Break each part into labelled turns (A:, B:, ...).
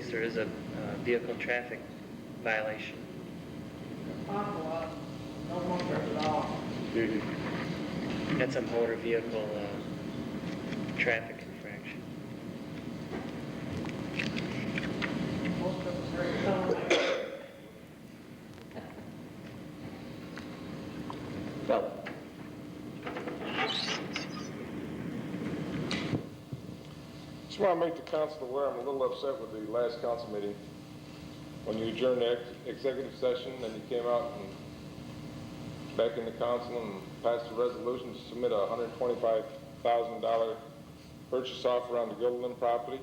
A: because there is a uh, vehicle traffic violation.
B: Awful lot, no wonder at all.
A: That's a motor vehicle uh, traffic infraction.
B: Most of us are telling
C: Well,
D: Just want to make the council aware, I'm a little upset with the last council meeting. When you adjourned the ex- executive session, and you came out and back in the council and passed a resolution to submit a $125,000 purchase offer on the Gilliland property.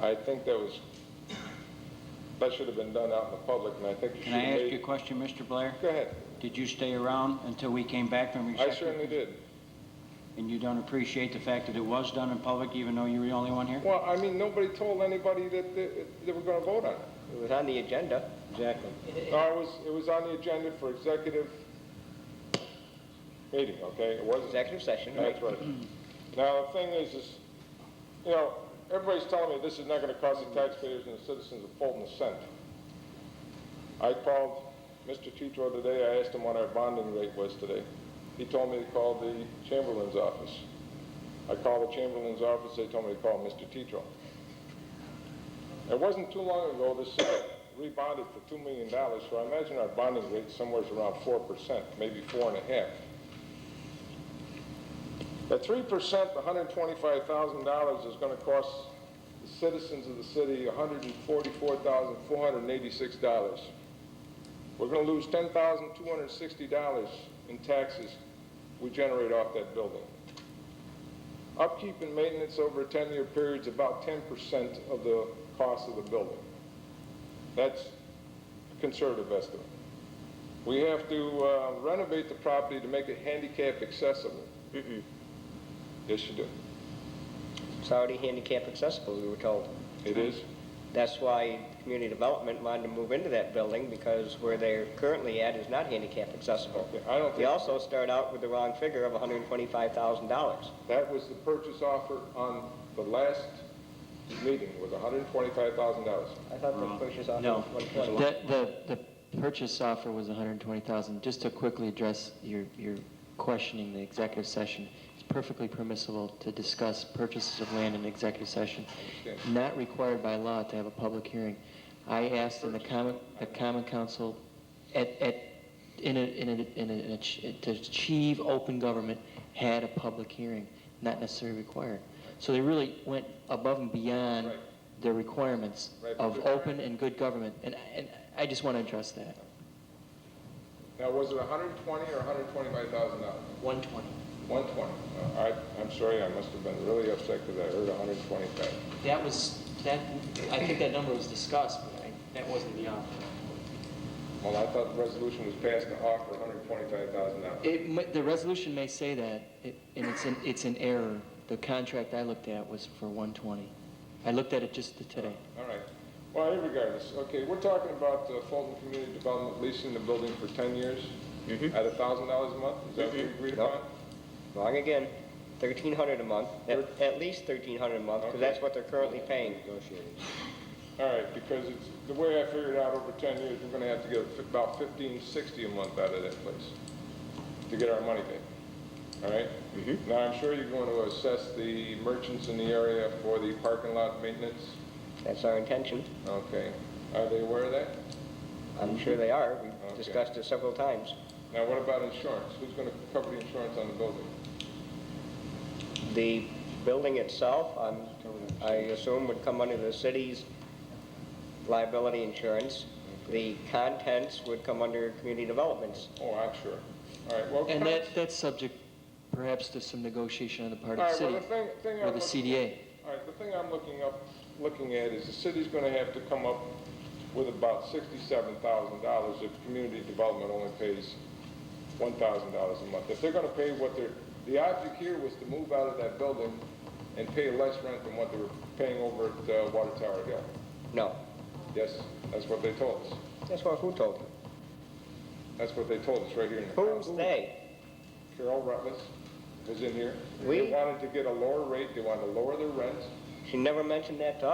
D: I think that was, that should have been done out in the public, and I think you should
C: can I
D: have
C: ask you a
D: made...
C: question, Mr. Blair?
D: Go ahead.
C: Did you stay around until we came back from your
D: I
C: second?
D: certainly did.
C: And you don't appreciate the fact that it was done in public, even though you were the only one here?
D: Well, I mean, nobody told anybody that they they were going to vote on it.
E: It was on the agenda.
C: Exactly.
D: No, it was, it was on the agenda for executive meeting, okay? It wasn't.
E: Executive session, right?
D: That's right. Now, the thing is, is, you know, everybody's telling me this is not gonna cost the taxpayers and the citizens of Fulton a cent. I called Mr. Tetro today, I asked him what our bonding rate was today. He told me to call the Chamberlain's office. I called the Chamberlain's office, they told me to call Mr. Tetro. It wasn't too long ago, this city rebonded for two million dollars, so I imagine our bonding rate somewhere's around four percent, maybe four and a half. At three percent, hundred and twenty-five thousand dollars is gonna cost the citizens of the city hundred and forty-four thousand, four hundred and eighty-six dollars. We're gonna lose ten thousand, two hundred and sixty dollars in taxes we generate off that building. Upkeep and maintenance over a ten-year period is about ten percent of the cost of the building. That's a conservative estimate. We have to uh, renovate the property to make it handicap accessible. Yes, you do.
E: It's already handicap accessible, we were told.
D: It is?
E: That's why community development wanted to move into that building because where they're currently at is not handicap accessible.
D: Okay, I don't
E: They
D: think,
E: also start out with the wrong figure of $125,000.
D: that was the purchase offer on the last meeting, was $125,000.
E: I thought
D: Mm.
E: the purchase offer
F: No,
E: was $120,000.
F: the, the, the purchase offer was 120,000. Just to quickly address your, your questioning the executive session, it's perfectly permissible to discuss purchases of land in executive session,
D: understand.
F: not required by law to have a public hearing. I asked in the common, the common council, at, at, in a, in a, in a, in a ch- to achieve open government, had a public hearing, not necessarily required. So they really went above and beyond
D: Right.
F: the requirements
D: Right,
F: of
D: but-
F: open and good government, and, and I just want to address that.
D: Now, was it 120 or $125,000?
A: 120.
D: 120. Uh, I, I'm sorry, I must have been really upset because I heard 125.
A: That was, that, I think that number was discussed, but that wasn't the offer.
D: Well, I thought the resolution was passed to offer $125,000.
F: It, mi- the resolution may say that, it- and it's an, it's an error. The contract I looked at was for 120. I looked at it just today.
D: All right. Well, regardless, okay, we're talking about uh, Fulton Community Development leasing the building for 10 years at $1,000 a month? Is that what we agreed
E: Nope.
D: upon?
E: Wrong again, 1,300 a month, at at least 1,300 a month,
D: Okay.
E: because that's what they're currently paying.
D: All right, because it's, the way I figured out over ten years, we're gonna have to get fi- about fifteen sixty a month out of that place to get our money back, all right?
F: Mm-hmm.
D: Now, I'm sure you're going to assess the merchants in the area for the parking lot maintenance,
E: That's our intention.
D: okay? Are they aware of that?
E: I'm sure they are.
D: Okay.
E: We've discussed it several times.
D: Now, what about insurance? Who's gonna cover the insurance on the building?
E: The building itself, I'm- I assume would come under the city's liability insurance. The contents would come under community developments.
D: Oh, I'm sure. All right, well.
F: And
D: con-
F: that, that's subject perhaps to some negotiation on the part
D: All
F: of the
D: right, well,
F: city
D: the thing- thing
F: or the
D: I'm looking-
F: CDA.
D: All right, the thing I'm looking up, looking at is the city's gonna have to come up with about sixty-seven thousand dollars if community development only pays one thousand dollars a month. If they're gonna pay what they're, the object here was to move out of that building and pay less rent than what they were paying over at uh, Water Tower Hill.
E: No,
D: Yes, that's what they told us.
E: that's what, who told you?
D: That's what they told us right here in the
E: Who's
D: council.
E: they?
D: Carol Rutledge was in here. They
E: We-
D: wanted to get a lower rate, they wanted to lower their rent.
E: She never mentioned that to us.